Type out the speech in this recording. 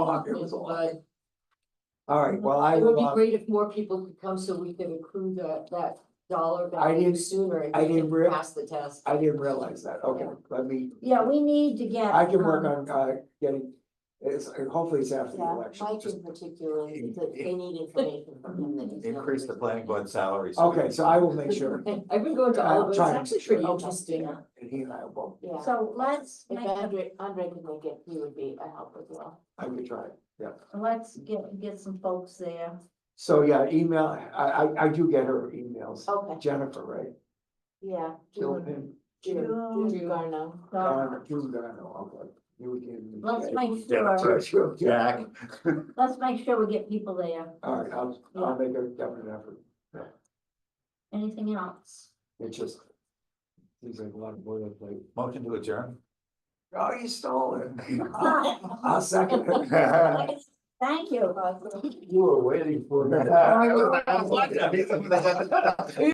Oh, it was a lot. All right, well, I It will, would be uh, great if more people could come so we could accrue that, that dollar I value didn't- sooner and I we didn't can real- pass the test. I didn't realize that, okay, let me, Yeah, we need to get. I can work on, um, uh, getting, it's, hopefully it's after the Yeah, election. Mike just- in particular, in- that they in- need information from him that he's. not Increase the really- planning board salary. so we Okay, can- so I will make sure, I've been going to all I'll of it, it's try and actually make sure. pretty I'll- interesting, and he and I will, yeah. So let's If make, a- Andre, Andre could make it, he would be a help as well. I will try, yeah. let's get, get some folks there. So, yeah, email, I, I, I do get her emails, Okay, Mm-hmm. Jennifer, right? yeah. Gilpin, June, June. June Garneau. So Garner, June Garner, okay. You gave me- Uh, let's make Yeah, sure, Sure, yeah. Jack, let's make sure we get people there. All right, I'll, I'll make a definite effort, Anything else? it's just. Seems like a lot of boilerplate. motion to adjourn. Oh, you stole it. I'll second it. Thank you. You were waiting for I was like, I was like that.